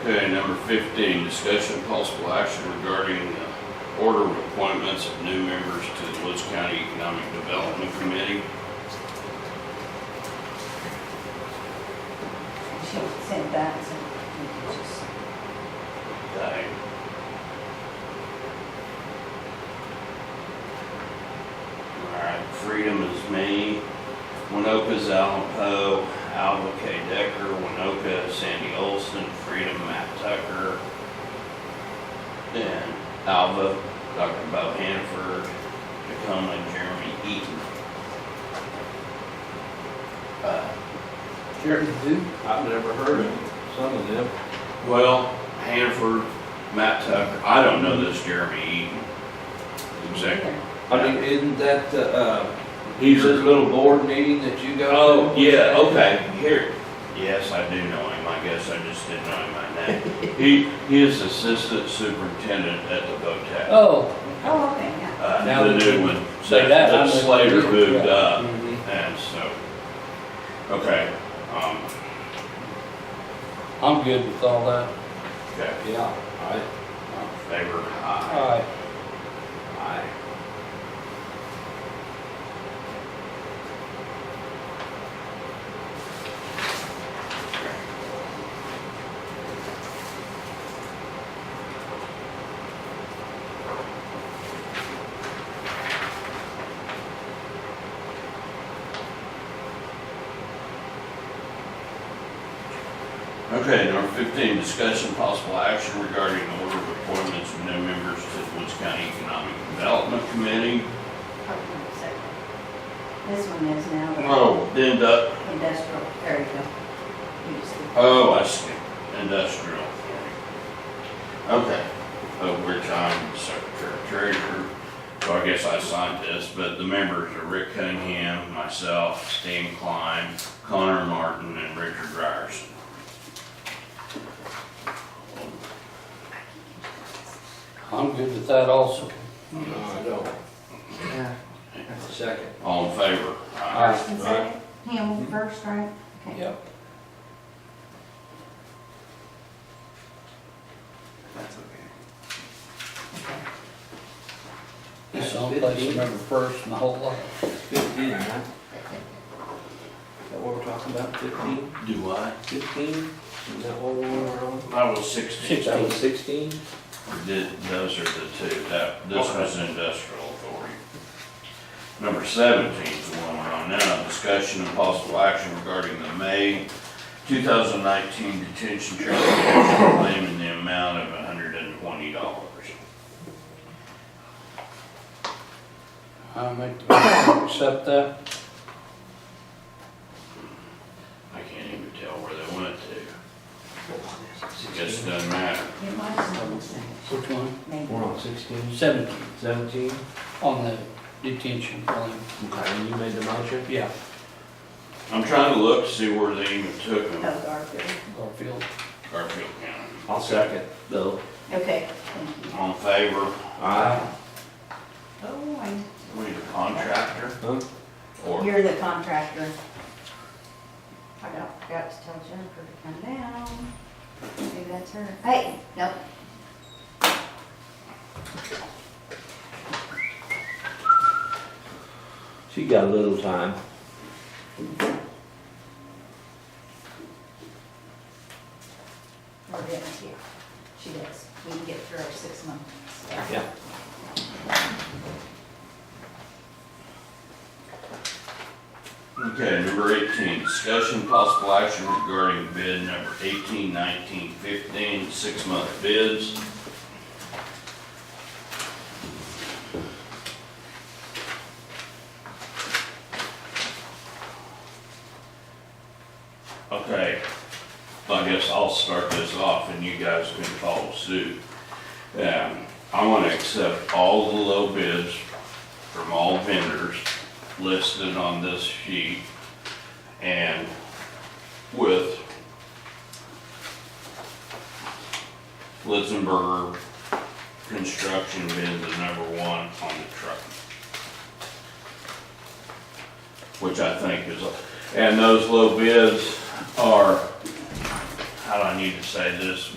Okay, number fifteen, discussion of possible action regarding the order of appointments of new members to the Woods County Economic Development Committee. She sent that, so we can just, Aye. All right, Freedom is me, Winoka's Alan Poe, Alva K. Decker, Winoka, Sandy Olson, Freedom, Matt Tucker, and Alva, Dr. Bo Hanford, Tacoma, Jeremy Eaton. Uh, Jeremy Zoo? I've never heard of him. Some of them. Well, Hanford, Matt Tucker, I don't know this Jeremy Eaton. Exactly. I mean, isn't that the, uh, He's this a, little board meeting that you go to? oh, yeah, okay, here. Yes, I do know him, I guess I just didn't know him by name. He, he is assistant superintendent at the VOTEC. Oh, Oh, okay, yeah. Uh, now the we new can one, that, say that, that I'm a- Slater moved yeah. up, Mhm. and so, okay, um, I'm good with all that. okay, Uh, Yeah, I, favor, aye. All right. Aye. Okay, number fifteen, discussion possible action regarding order of appointments of new members to the Woods County Economic Development Committee. Hold on a second. This one is now the Oh, then the, industrial, there you go. You just- oh, I see, industrial. Okay, of which I'm secretary treasurer, so I guess I signed this, but the members are Rick Cunningham, myself, Stan Klein, Connor Martin, and Richard Ryerson. I'm good with that also. no, I don't. Yeah. Second. All in favor? First and second, him first, right? Okay. Yep. That's okay. Okay. It's someplace you remember first in the whole lot. Fifteen, huh? Is that what we're talking about, fifteen? Do I? Fifteen? Is that what we were on? I was sixteen. That was sixteen? Did, those are the two, that, this was industrial authority. Number seventeen is the one we're on now, discussion and possible action regarding the May two thousand nineteen detention charge action claim in the amount of hundred and twenty dollars. I make the motion to accept that. I can't even tell where they went to, it just doesn't matter. It was on the second, Which one? maybe. We're on sixteen? Seventeen, Seventeen? on the detention claim. Okay, and you made the motion? Yeah, I'm trying to look to see where they even took them, Oh, Garfield. Garfield. Garfield County. I'll second. Bill? Okay, thank you. All in favor, Aye. Oh, I- we need a contractor Huh? or you're the contractor. I got, forgot to tell Jennifer to come down. Maybe that's her. Hey, nope. She got a little time. We're getting here. She does. We can get through our six months. Yeah. Okay, number eighteen, discussion possible action regarding bid number eighteen, nineteen, fifteen, six-month bids. Okay, I guess I'll start this off and you guys can follow suit. Um, I wanna accept all the low bids from all vendors listed on this sheet and with Litzenberger Construction being the number one on the truck. Which I think is, and those low bids are, how do I need to say this?